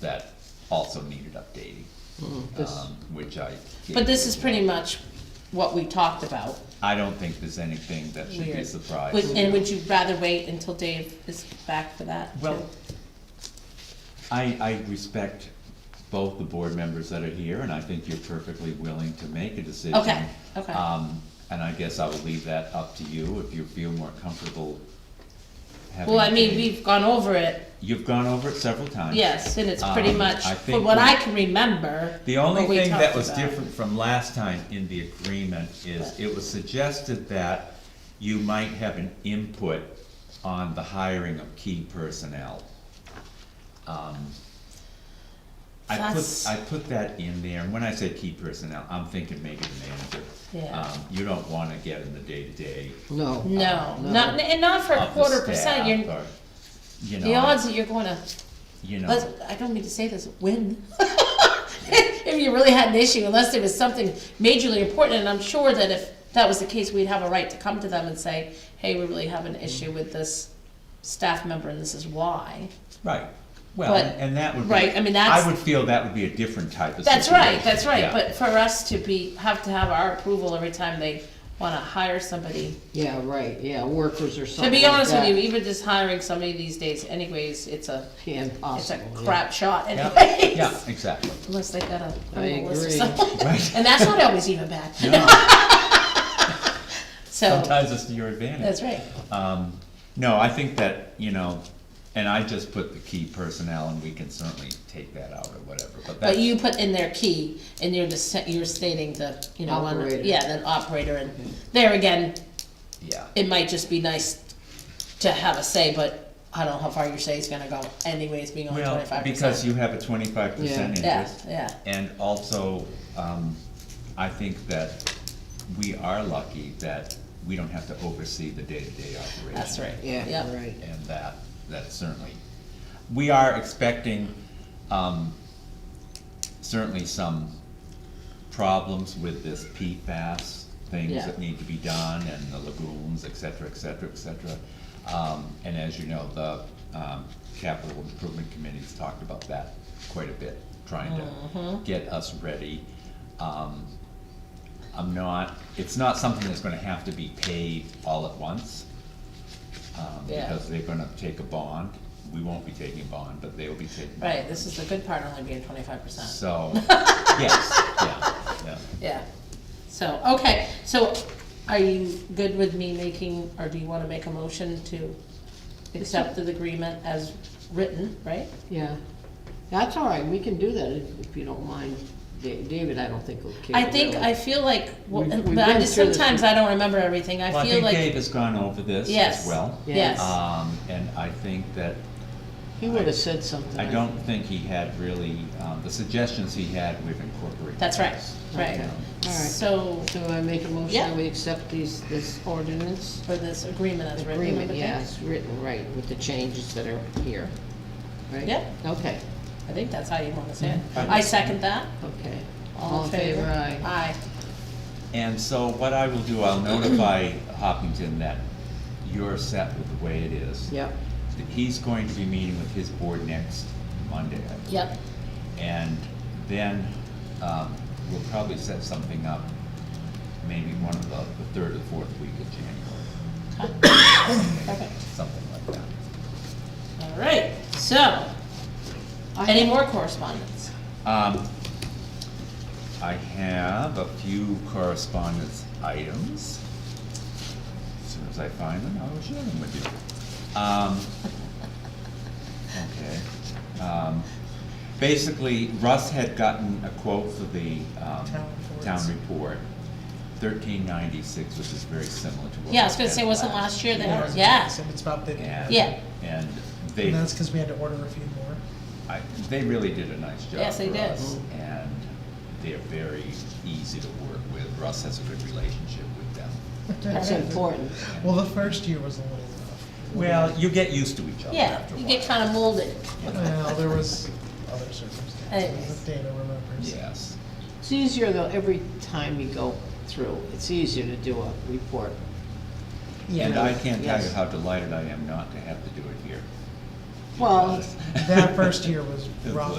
that also needed updating, um, which I. gave Mm-hmm. But this you. is pretty much what we talked about. I don't think there's anything that should be a Weird. surprise. Would- And would you rather wait until Dave is back for that? Well, too? I, I respect both the board members that are here, and I think you're perfectly willing to make a decision. Okay, okay. Um, and I guess I will leave that up to you, if you feel more comfortable having. Well, I mean, a- we've gone over it, You've gone over it several times. yes, and it's pretty Um, much, I from think what we- I can remember. The only what we thing that talked was about. different from last time in the agreement is it was suggested that you might have an input on the hiring of key personnel. Um, I put, That's- I put that in there, and when I say key personnel, I'm thinking maybe the manager. Yeah. Um, You don't wanna get in the day-to-day No. No, Uh, no. not, and not for a of quarter the percent, staff you're, or, you the know, odds that you're gonna, you know. let's, I don't mean to say this, win. If you really had an issue, unless there was something majorly important, and I'm sure that if that was the case, we'd have a right to come to them and say, hey, we really have an Mm-hmm. issue with this staff member and this is why. Right, well, But- and and that would be. right, I mean, that's- I would feel that would be a different type of That's situation. right, that's right, Yeah. but for us to be, have to have our approval every time they wanna hire somebody. Yeah, right, yeah, workers or To something be honest with you, like that. even just hiring somebody these days anyways, it's a, Yeah, it's a Impossible. yeah. crap shot Yeah, anyways. yeah, exactly, Unless they got a I criminal list or agree. something. right. And that's not always even bad, No, so, Sometimes it's to your advantage. that's right. Um, no, I think that, you know, and I just put the key personnel and we can certainly take that out or whatever, but But that's, you put in their key, and you're just, sa- you're stating the, you know, one- Operator. yeah, the operator, and there again, yeah. it might just be nice to have a say, but I don't know how far your say is gonna go anyways, being only Well, twenty-five percent. because you have a twenty-five percent Yeah, interest. yeah. And also, um, I think that we are lucky that we don't have to oversee the day-to-day operation. That's right. Yeah, right. and that, that certainly, we are expecting, um, certainly some problems with this PFAS, things Yeah. that need to be done, and the lagoons, et cetera, et cetera, et cetera. Um, and as you know, the, um, capital improvement committee's talked about that quite a bit, trying Mm-hmm. to get us ready. Um, I'm not, it's not something that's gonna have to be paid all at once. Um, Yeah. because they're gonna take a bond, we won't be taking a bond, but they'll be taking. a bond. Right, this is the good part, only being twenty-five percent. So, yes, yeah, yeah. Yeah. So, okay, so are you good with me making, or do you wanna make a motion to accept the agreement as written, right? Yeah. That's all right, we can do that if if you don't mind. Da- David, I don't think will care. I think, I really. feel like, well, We've- we've but I been just, through this sometimes I don't remember everything, Well, I I feel think like, Dave has gone over this as yes, well. yes, Um, and I think that, He would've said something. I don't think he had really, um, the suggestions he had, we've incorporated. that's right, right. Okay. All right. So, So I make a motion Yeah. that we accept these, this ordinance? for this agreement as written. Agreement, okay? yes, written, right, with the changes that are here. Right? Yep. Okay, I think that's how you wanna say it. Mhm. I second that. okay. All in favor, aye. Aye. And so what I will do, I'll notify Hopkinton that you're set with the way it is. Yep, He's going to be meeting with his board next Monday, I believe. Yep. And then, um, we'll probably set something up, maybe one of the, the third or fourth week of January, Perfect. something like that. All right, so, any more correspondence? Um, I have a few correspondence items. As soon as I find them, I will share them with you. Um, okay. Um, basically, Russ had gotten a quote for the, um, Town town reports. report, thirteen ninety-six, which is very similar to what. Yeah, I was we gonna had say, wasn't last year Yeah, that, it's- yeah, so It's about the, and And- Yeah. And they. that's because we had to order a few more. I, they really did a nice job Yes, they for did. us, and they're very easy to work with. Russ has a good relationship with them. that's important. Well, the first year was a little rough. Well, you get used to each other yeah, after a you while. get kinda molded. Well, there was other Anyways. circumstances that Dana remembers. Yes, It's easier though, every time you go through, it's easier to do a report. and I can't tell you Yes. how delighted I am not to have to do it here. Well, because- That first year was It rough.